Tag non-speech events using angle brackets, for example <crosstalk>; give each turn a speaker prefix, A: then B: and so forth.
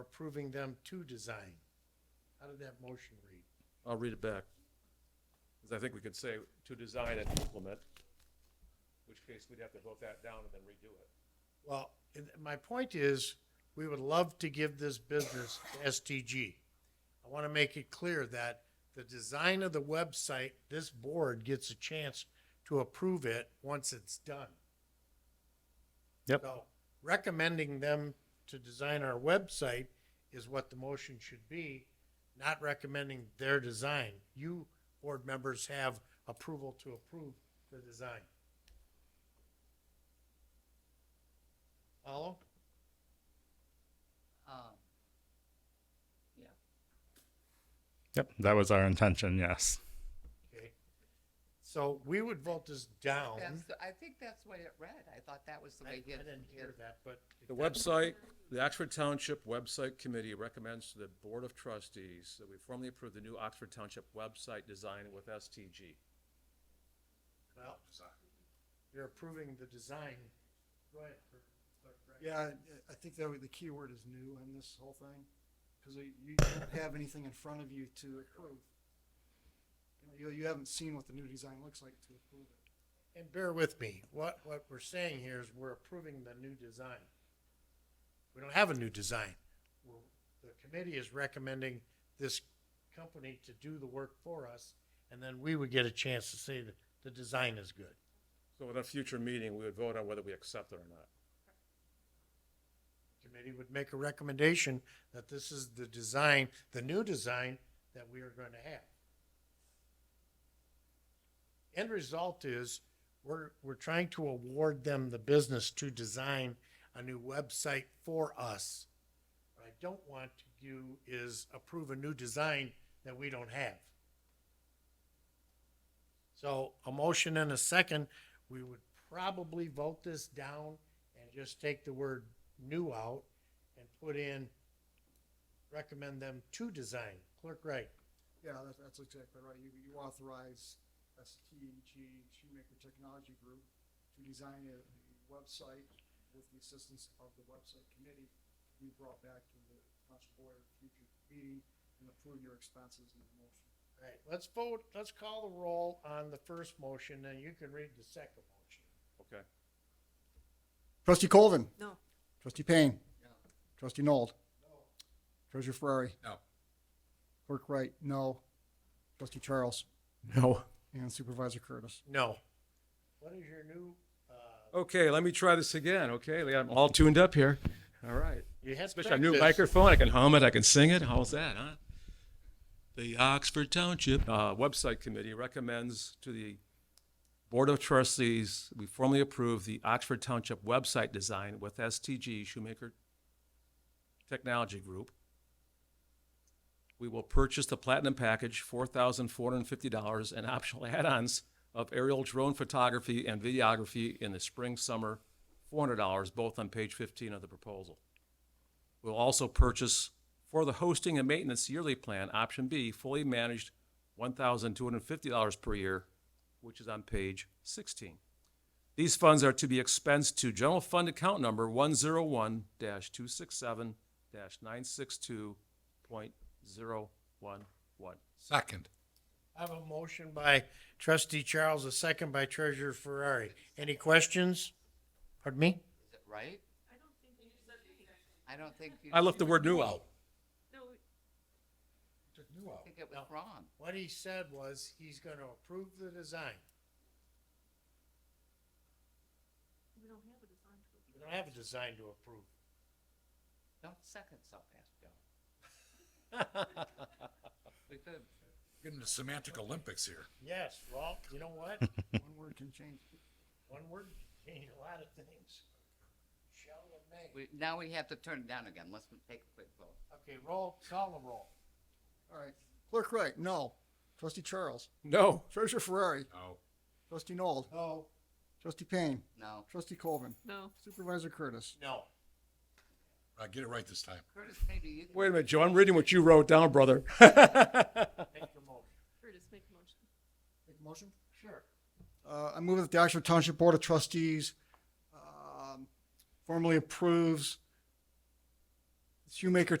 A: approving them to design. How did that motion read?
B: I'll read it back. Because I think we could say to design and implement, which case we'd have to vote that down and then redo it.
A: Well, and my point is, we would love to give this business to STG. I want to make it clear that the design of the website, this board gets a chance to approve it once it's done.
C: Yep.
A: So recommending them to design our website is what the motion should be, not recommending their design. You, board members, have approval to approve the design. Follow?
D: Um, yeah,
C: Yep, that was our intention, yes.
A: Okay. So we would vote this down.
D: that's, the- I think that's what it read. I thought that was the
A: I I
D: way he had.
A: didn't hear that, but.
B: The website, the Oxford Township Website Committee recommends to the Board of Trustees that we formally approve the new Oxford Township website design with STG.
A: Well, You're approving the design. Go ahead. Clerk- Clerk Wright.
E: Yeah, I- I think that would- the key word is new in this whole thing, because you don't have anything in front of you to approve. You, you haven't seen what the new design looks like to approve it.
A: And bear with me, what, what we're saying here is we're approving the new design. We don't have a new design. We're- The committee is recommending this company to do the work for us, and then we would get a chance to say that the design is good.
B: So at a future meeting, we would vote on whether we accept it or not.
A: Committee would make a recommendation that this is the design, the new design that we are going to have. End result is, we're, we're trying to award them the business to design a new website for us. What I don't want to do is approve a new design that we don't have. So a motion and a second, we would probably vote this down and just take the word new out and put in recommend them to design. Clerk Wright,
E: Yeah, that's, that's exactly right. You, you authorize STG, Shoemaker Technology Group, to design a website with the assistance of the website committee. You brought back to the council board at a future meeting and approve your expenses in the motion.
A: all right, let's vote, let's call the roll on the first motion, and you can read the second motion.
B: Okay?
E: Trustee Colvin?
F: No.
E: Trustee Payne? Trustee Nold? Treasurer Ferrari?
B: No.
E: Clerk Wright? No. Trustee Charles?
C: No.
E: And Supervisor Curtis? <laughs>
A: No. What is your new, uh,
B: Okay, let me try this again, okay? I'm all tuned up here. All right.
A: you had
B: Especially our new
A: practice.
B: microphone, I can hum it, I can sing it, how's that, huh? The Oxford Township uh, Website Committee recommends to the Board of Trustees, we formally approve the Oxford Township website design with STG Shoemaker Technology Group. We will purchase the Platinum Package, four thousand four hundred and fifty dollars, and optional add-ons of aerial drone photography and videography in the spring, summer, four hundred dollars, both on page fifteen of the proposal. We'll also purchase for the hosting and maintenance yearly plan, option B, fully managed one thousand two hundred and fifty dollars per year, which is on page sixteen. These funds are to be expensed to general fund account number one zero one two six seven nine six two point zero one one.
G: Second.
A: I have a motion by trustee Charles, a second by treasurer Ferrari. Any questions? Pardon me?
D: Is it right? I don't think you.
B: I left the word new out.
D: I think it was wrong.
A: What he said was he's gonna approve the design. We don't have a design to approve.
D: Don't second so fast,
A: <laughs>
D: Joe. We could,
G: Getting the semantic Olympics here.
A: Yes, well, you know what?
E: One word can change.
A: One word can change a lot of things. Shall and may.
D: we, now we have to turn it down again. Let's take a quick vote.
A: Okay, roll, call the roll.
E: All right. Clerk Wright? No. Trustee Charles?
B: No.
E: Treasurer Ferrari?
G: Oh.
E: Trustee Nold?
A: No.
E: Trustee Payne?
D: No,
E: Trustee Colvin?
F: No.
E: Supervisor Curtis?
A: No.
G: I get it right this time.
D: Curtis, maybe you.
B: Wait a minute, Joe, I'm reading what you wrote down, brother. <laughs>
A: Make your motion.
F: Curtis, make a motion.
E: Make a motion?
A: Sure.
E: Uh, I move that the Oxford Township Board of Trustees um, formally approves Shoemaker